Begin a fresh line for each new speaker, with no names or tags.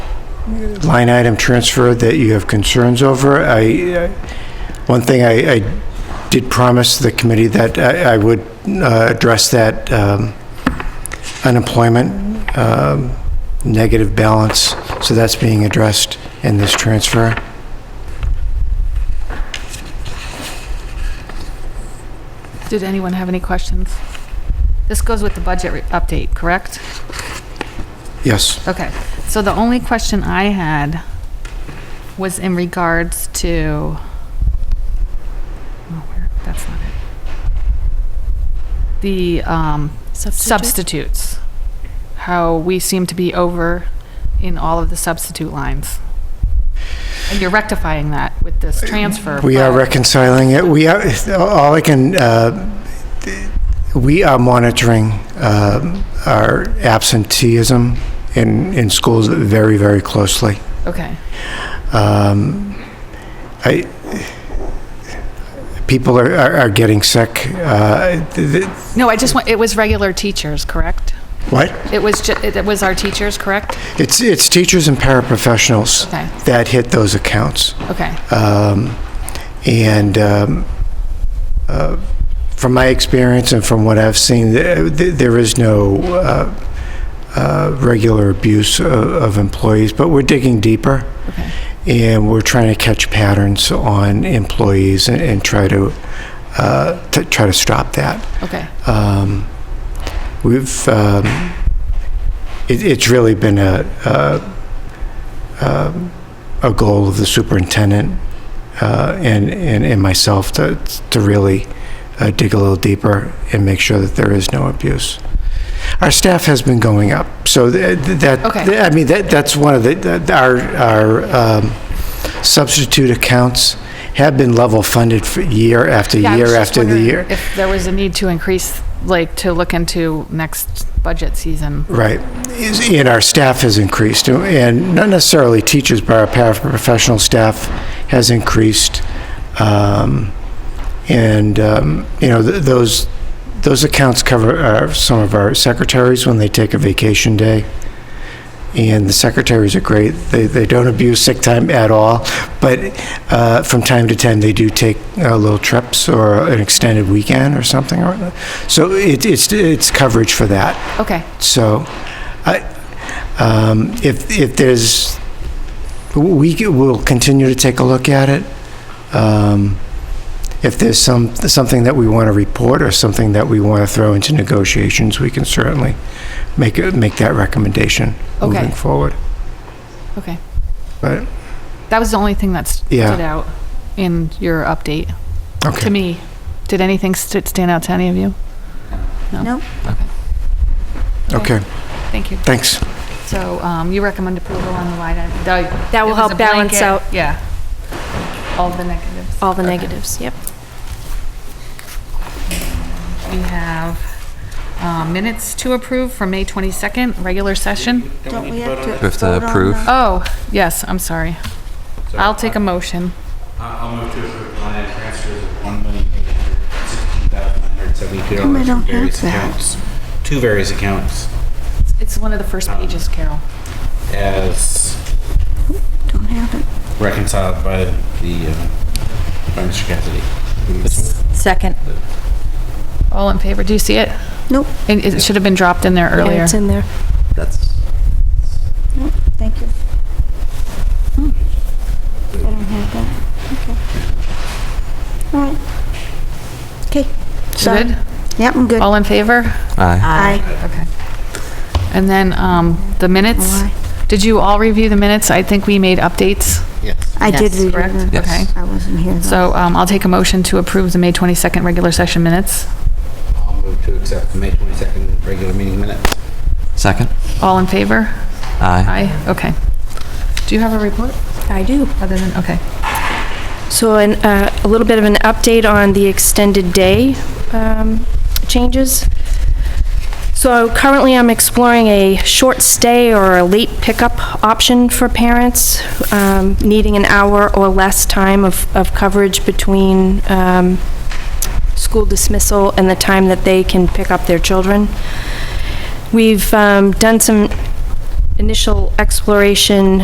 line item transfer that you have concerns over. I, I- one thing I, I did promise the committee that I, I would uh, address that um, unemployment um, negative balance, so that's being addressed in this transfer.
Did anyone have any questions? This goes with the budget re- update, correct?
Yes.
Okay, so the only question I had was in regards to, oh, where, that's not it. The um, substitutes, how we seem to be over in all of the substitute lines. And you're rectifying that with this transfer.
Uh, We are
but-
reconciling it. We are, all I can, uh, we are monitoring um, our absenteeism in, in schools very, very closely.
Okay,
Um, I, people are, are are getting sick. Uh, th- th-
no, I just want, it was regular teachers, correct?
What?
It was, ju- it was our teachers, correct?
It's, it's teachers and paraprofessionals
Okay.
that hit those accounts.
Okay,
Um, And um, uh, from my experience and from what I've seen, th- th- there is no uh, uh, regular abuse of- of employees, but we're digging deeper.
okay.
and we're trying to catch patterns on employees and, and try to, uh, to try to stop that.
Okay,
Um, we've um, it, it's really been a a, um, a goal of the superintendent uh, and, and and myself to to really uh, dig a little deeper and make sure that there is no abuse. Our staff has been going up, so th- th- that
Okay.
th- I mean that that's one of the that, our our um, substitute accounts have been level funded for year after
Yeah, I was
year
just
after the
wondering
year.
If there was a need to increase, like, to look into next budget season.
Right. Is- And our staff has increased, and not necessarily teachers, but our paraprofessional staff has increased. Um, And, um, you know, th- those, those accounts cover our- some of our secretaries when they take a vacation day. And the secretaries are great. They, they don't abuse sick time at all, but uh, from time to time, they do take uh, little trips or an extended weekend or something. or other. So it- it's, it's coverage for that.
Okay,
So, I, um, if, if there's, we c- will continue to take a look at it. Um, If there's some, something that we want to report or something that we want to throw into negotiations, we can certainly make, it- make that recommendation moving
Okay.
forward.
okay.
Right.
That was the only thing that stood
Yeah.
out in your update, to
Okay.
me. Did anything st- stand out to any of you?
No.
Okay,
Thank you.
thanks.
So, um, you recommend approval on the line item?
That will
it was
help
a
balance
blanket-
out-
Yeah. All the negatives.
All the
Okay.
negatives, yep.
We have, um, minutes to approve from May 22nd, regular session.
Don't we have to?
We have to vote on approve. the-
Oh, yes, I'm sorry. I'll take a motion.
I'll I'll move to approve line item transfers of one million eight hundred sixteen thousand nine hundred seventy-two
Come, I
dollars from
don't have
various
that.
accounts. Two various accounts
It's one of the first pages, Carol.
as
Don't have it.
reconciled by the, uh, by Mr. Cassidy. This one?
Second.
All in favor, do you see it?
Nope.
And it should have been dropped in there
Yeah,
earlier.
It's in there.
That's.
Nope, thank you. Hmm. I don't have that. Okay. All right. Okay. Sorry.
Good?
Yep, I'm good.
All in favor?
Aye.
Aye.
Okay. And then, um, the minutes?
Aye.
Did you all review the minutes? I think we made updates,
I did
Yes,
read
correct?
it.
Yes.
Okay.
I wasn't here though.
So, um, I'll take a motion to approve the May 22nd regular session minutes.
I'll move to accept the May twenty-second regular meeting minutes.
Second?
All in favor?
Aye.
Aye, okay. Do you have a report
I do.
other than, okay.
So an, uh, a little bit of an update on the extended day um, changes. So currently, I'm exploring a short stay or a late pickup option for parents um, needing an hour or less time of, of coverage between um, school dismissal and the time that they can pick up their children. We've um, done some initial exploration